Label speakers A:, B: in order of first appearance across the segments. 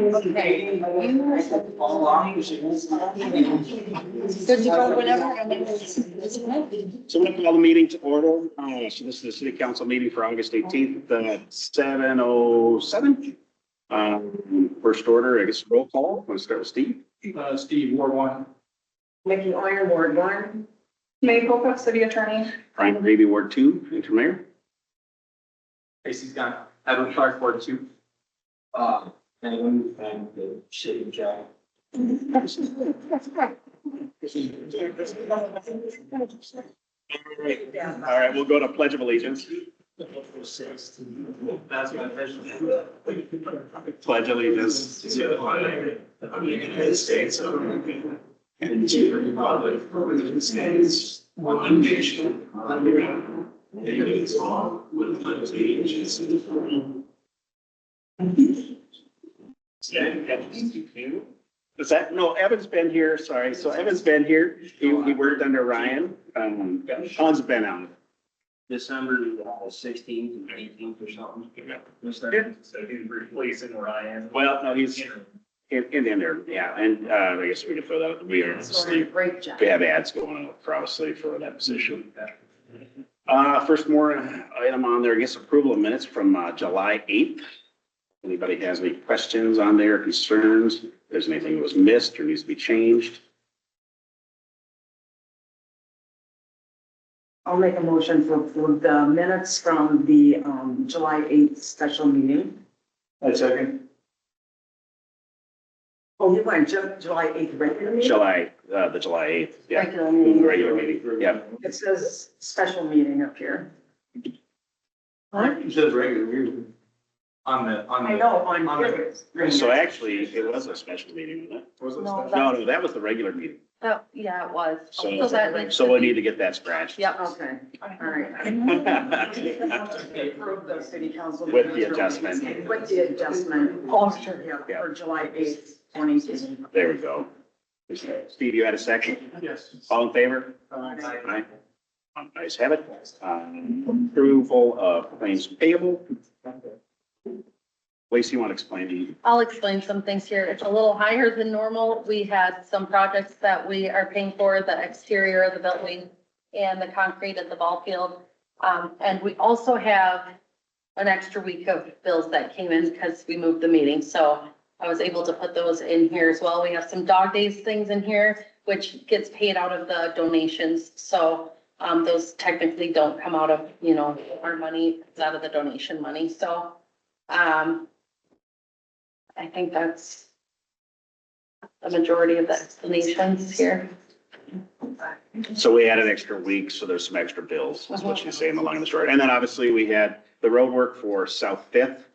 A: Okay. All along.
B: Good to go whenever. I mean, it's- it's-
A: So we'll call the meeting to order. Uh, so this is the city council meeting for August eighteenth, at seven oh seven. Um, first order, I guess roll call. Let's start with Steve.
C: Uh, Steve, War One.
D: Mickey Oyer, Ward one.
E: May Poca, city attorney.
A: Brian Gravy, Ward Two, interim mayor.
C: Tracy's gone. Evan Clark, War Two. Uh, anyone, and the shitty guy.
A: All right. All right, we'll go to pledge of allegiance.
C: That's my vision.
A: Pledge allegiance.
C: To the flag of the United States of America and to the republic for which it stands, one nation, under God, indivisible, with liberty and justice for all.
A: Is that, no, Evan's been here, sorry. So Evan's been here. He, he worked under Ryan. Um, Sean's been out.
F: December sixteenth and eighteenth or something.
A: Yeah.
C: So he's replacing Ryan.
A: Well, no, he's in, in there, yeah. And, uh, I guess we can throw that, we are asleep.
D: Great job.
A: We have ads going on probably for that position. Uh, first more item on there, I guess approval of minutes from, uh, July eighth. Anybody has any questions on there, concerns, if there's anything that was missed or needs to be changed?
D: I'll make a motion for, for the minutes from the, um, July eighth special meeting.
C: A second.
D: Oh, you want Ju- July eighth regular meeting?
A: July, uh, the July eighth, yeah,
D: Regular
A: regular
D: meeting.
A: meeting, yeah.
D: It says special meeting up here.
C: It says regular meeting. On the, on the.
D: I know, on
C: On
D: here.
C: the-
D: it's green.
A: So actually, it was a special meeting, wasn't
C: Was it
B: No,
C: special?
A: it? No, no, that was the regular meeting.
B: That, Oh, yeah, it was.
A: So-
B: that needs
A: So
B: to
A: we
B: be-
A: need to get that scratched.
B: Yep.
D: Okay, all right. Approve the city council.
A: With the
D: minutes from-
A: adjustment.
D: With the adjustment.
B: Oh, sure.
D: Yeah,
A: Yeah.
D: for July eighth, twenty eighteen.
A: There we go. Steve, you had a second?
C: Yes.
A: All in favor? Aye. Nice have it. Um, Approval of claims payable. Lacey, you want to explain to you?
B: I'll explain some things here. It's a little higher than normal. We had some projects that we are paying for, the exterior of the building and the concrete at the ball field. Um, and we also have an extra week of bills that came in because we moved the meeting, so I was able to put those in here as well. We have some dog days things in here, which gets paid out of the donations, so um, those technically don't come out of, you know, our money, it's out of the donation money, so um, I think that's the majority of the explanations here.
A: So we had an extra week, so there's some extra bills, is what she's saying along the short. And then obviously we had the roadwork for South Fifth.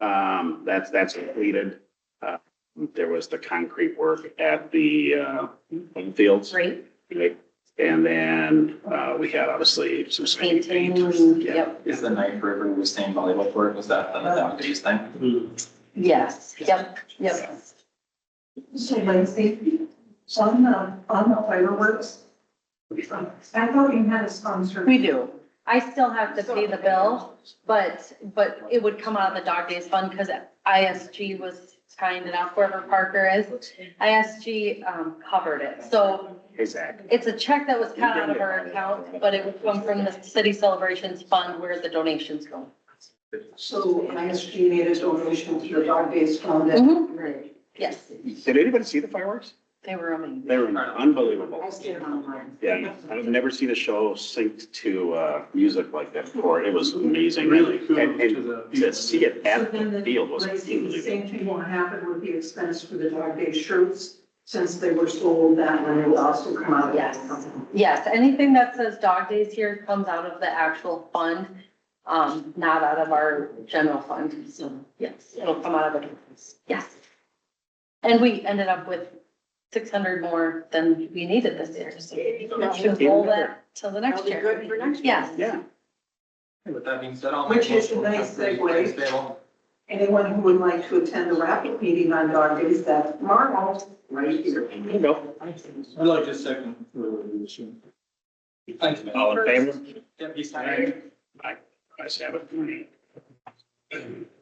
A: Um, that's, that's completed. Uh, There was the concrete work at the, uh, home fields.
B: Great,
A: Right. And then, uh, we had obviously some. spray
B: painting,
A: paint. Yeah.
B: yep,
G: Is the Knife River Withstand volleyball court, was that the
H: Uh,
G: dog days thing?
B: yes, yep, yep.
H: So Lacey, on the, on the fireworks, I thought you had a sponsor.
B: We do. I still have to pay the bill, but, but it would come out of the dog days fund because ISG was kind enough, whoever Parker is. ISG, um, covered it. So
A: Hey, Zach.
B: it's a check that was cut out of our account, but it would come from the city celebrations fund where the donations go.
H: So ISG made a donation to the dog days fund and
B: Mhm.
D: Great.
B: Yes,
A: Did anybody see the fireworks?
B: they were amazing.
A: They were unbelievable.
D: I stayed online.
A: Yeah, I've never seen a show synced to, uh, music like that before. It was amazing, really. And, and to see it
H: So
A: at
H: then
A: the
H: the
A: field was
H: Lacey, the
A: unbelievable.
H: same thing will happen with the expense for the dog day shirts, since they were sold that one, it will also come out. of-
B: Yes. Yes, anything that says dog days here comes out of the actual fund, um, not out of our general fund, so, yes, it'll come out of it, yes. And we ended up with six hundred more than we needed this year, so we should roll that till the
D: That'll
B: next
D: be
B: year.
D: good for next year.
B: Yes.
A: Yeah.
G: With that being said, I'll.
H: Which is a nice segue. Anyone who would like to attend the raffle meeting on dog days, that's tomorrow, right here.
A: There you go.
C: I'd like to second. Thanks, man.
A: All in favor?
G: Deputy
A: I have it.